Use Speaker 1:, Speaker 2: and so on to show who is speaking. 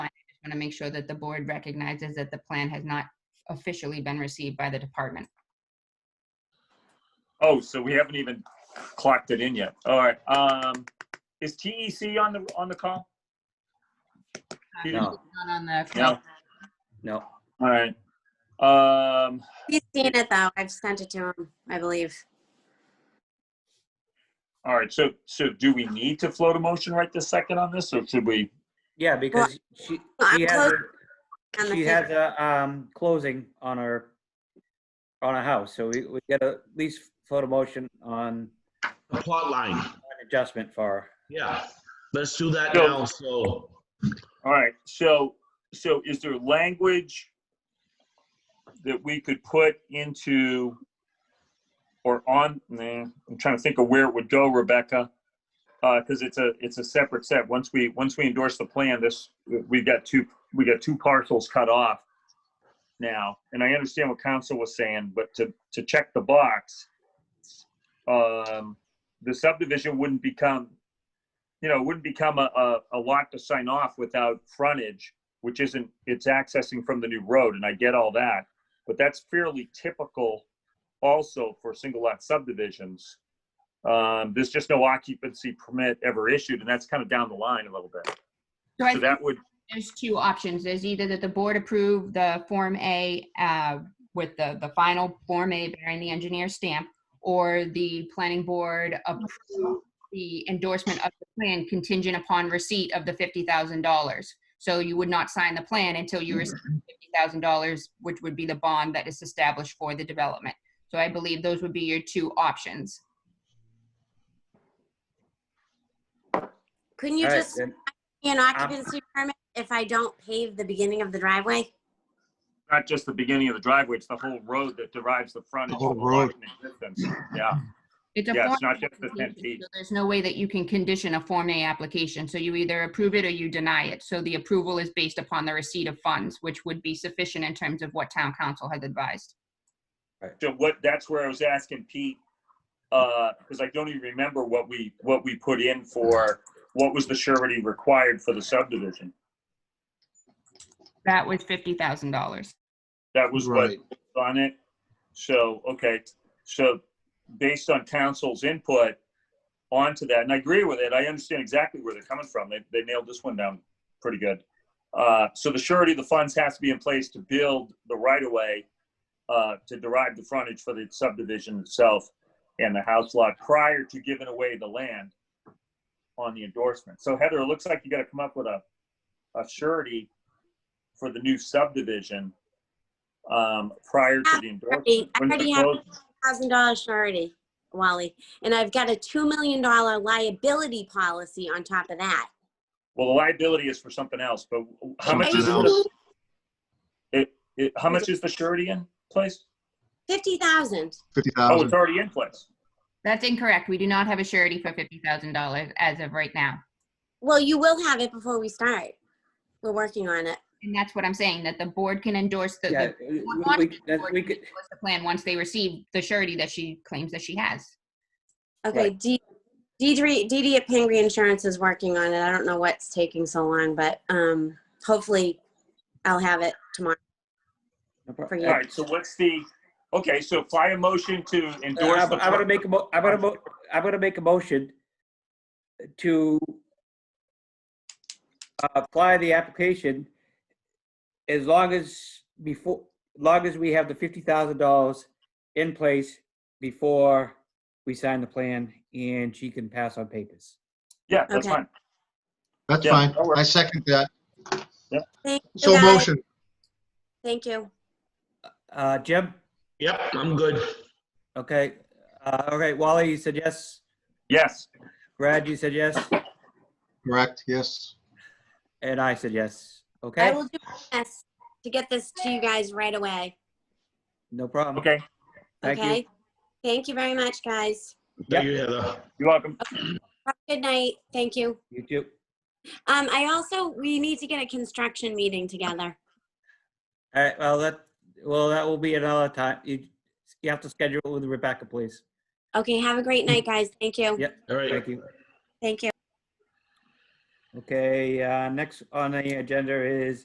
Speaker 1: want to make sure that the board recognizes that the plan has not officially been received by the department.
Speaker 2: Oh, so we haven't even clocked it in yet. All right. Um, is TEC on the, on the call? Peter?
Speaker 1: Not on the-
Speaker 2: No.
Speaker 3: No,
Speaker 2: All right. Um,
Speaker 4: He's seen it though. I've sent it to him, I believe.
Speaker 2: all right. So, so do we need to float a motion right this second on this or should we?
Speaker 3: yeah, because she,
Speaker 4: I'm
Speaker 3: she has,
Speaker 4: close
Speaker 3: her-
Speaker 4: On the
Speaker 3: she
Speaker 4: fifth.
Speaker 3: has a, um, closing on her, on a house, so we, we get a at least photo motion on
Speaker 5: The plot line,
Speaker 3: an adjustment for her.
Speaker 5: yeah. Let's do that
Speaker 2: So-
Speaker 5: now, so,
Speaker 2: All right. So, so is there language that we could put into or on, nah, I'm trying to think of where it would go, Rebecca. Uh, cause it's a, it's a separate set. Once we, once we endorse the plan, this, we've got two, we got two parcels cut off now. And I understand what council was saying, but to, to check the box, um, the subdivision wouldn't become, you know, it wouldn't become a, a, a lot to sign off without frontage, which isn't, it's accessing from the new road, and I get all that. But that's fairly typical also for single lot subdivisions. Um, there's just no occupancy permit ever issued, and that's kind of down the line a little bit.
Speaker 1: So I
Speaker 2: So
Speaker 1: think
Speaker 2: that would,
Speaker 1: there's two options. There's either that the board approve the Form A uh, with the, the final Form A bearing the engineer's stamp, or the planning board approve the endorsement of the plan contingent upon receipt of the $50,000. So you would not sign the plan until you receive $50,000, which would be the bond that is established for the development. So I believe those would be your two options.
Speaker 4: Couldn't you
Speaker 3: All right,
Speaker 4: just
Speaker 3: then. Uh-huh.
Speaker 4: give me an occupancy permit if I don't pave the beginning of the driveway?
Speaker 2: not just the beginning of the driveway, it's the whole road that derives the frontage.
Speaker 5: whole
Speaker 2: from the lot in existence. Yeah,
Speaker 1: It's a
Speaker 2: Yeah,
Speaker 1: Form
Speaker 2: it's not
Speaker 1: A
Speaker 2: just the 10
Speaker 1: application,
Speaker 2: feet.
Speaker 1: so There's no way that you can condition a Form A application, so you either approve it or you deny it. So the approval is based upon the receipt of funds, which would be sufficient in terms of what town council has advised.
Speaker 2: so what, that's where I was asking Pete, uh, cause I don't even remember what we, what we put in for, what was the surety required for the subdivision?
Speaker 1: That was fifty thousand dollars.
Speaker 2: That was what
Speaker 5: right,
Speaker 2: on it. So, okay, so based on council's input onto that, and I agree with it, I understand exactly where they're coming from. They, they nailed this one down pretty good. Uh, so the surety, of the funds has to be in place to build the right of way, uh, to derive the frontage for the subdivision itself and the house lot prior to giving away the land on the endorsement. So Heather, it looks like you gotta come up with a, a surety for the new subdivision, um, prior to the endorsement.
Speaker 4: I
Speaker 2: When's the
Speaker 4: already have-
Speaker 2: close?
Speaker 4: Thousand dollar surety, Wally. And I've got a two million dollar liability policy on top of that.
Speaker 2: Well, the liability is for something else, but how much is,
Speaker 5: Something else.
Speaker 2: it, it, how much is the surety in place?
Speaker 4: Fifty thousand.
Speaker 6: Fifty
Speaker 2: Oh, it's
Speaker 6: thousand.
Speaker 2: already in place.
Speaker 1: That's incorrect. We do not have a surety for fifty thousand dollars as of right now.
Speaker 4: Well, you will have it before we start. We're working on it.
Speaker 1: And that's what I'm saying, that the board can endorse the,
Speaker 3: Yeah,
Speaker 1: the
Speaker 3: we,
Speaker 1: one
Speaker 3: we,
Speaker 1: option
Speaker 3: that-
Speaker 1: would
Speaker 3: we
Speaker 1: be
Speaker 3: could,
Speaker 1: endorse the plan once they receive the surety that she claims that she has.
Speaker 4: Okay,
Speaker 3: Right.
Speaker 4: D, Deidre, Didi at Pingree Insurance is working on it. I don't know what's taking so long, but, um, hopefully I'll have it tomorrow
Speaker 3: no problem.
Speaker 4: for
Speaker 2: All
Speaker 4: you.
Speaker 2: right, so what's the, okay, so fly a motion to endorse
Speaker 3: I'm
Speaker 2: the.
Speaker 3: I'm gonna Uh, make a mo, I'm gonna mo, I'm gonna make a motion to uh, apply the application as long as before, long as we have the fifty thousand dollars in place before we sign the plan and she can pass on papers.
Speaker 2: Yeah, that's
Speaker 4: Okay.
Speaker 2: fine.
Speaker 6: That's
Speaker 2: Yeah,
Speaker 6: fine.
Speaker 2: that works.
Speaker 6: I second that.
Speaker 4: Thank you,
Speaker 6: So
Speaker 4: guys.
Speaker 6: motion.
Speaker 4: Thank you.
Speaker 3: Uh, Jim?
Speaker 5: yep, I'm good.
Speaker 3: Okay, uh, all right, Wally, you said yes?
Speaker 2: Yes,
Speaker 3: Brad, you said yes?
Speaker 6: Correct, yes.
Speaker 3: And I said yes. Okay,
Speaker 4: I will do my best to get this to you guys right away,
Speaker 3: no problem.
Speaker 2: okay,
Speaker 3: Thank you.
Speaker 4: okay? Thank you very much, guys.
Speaker 3: Yep.
Speaker 5: Thank you, Heather.
Speaker 2: you're welcome.
Speaker 4: Have a Good night. Thank you.
Speaker 3: You too.
Speaker 4: Um, I also, we need to get a construction meeting together.
Speaker 3: All right, well, that, well, that will be another time. You, you have to schedule it with Rebecca, please.
Speaker 4: Okay, have a great night, guys. Thank you.
Speaker 3: Yeah.
Speaker 5: All right,
Speaker 3: Thank you.
Speaker 4: Thank you.
Speaker 3: Okay, uh, next on the agenda is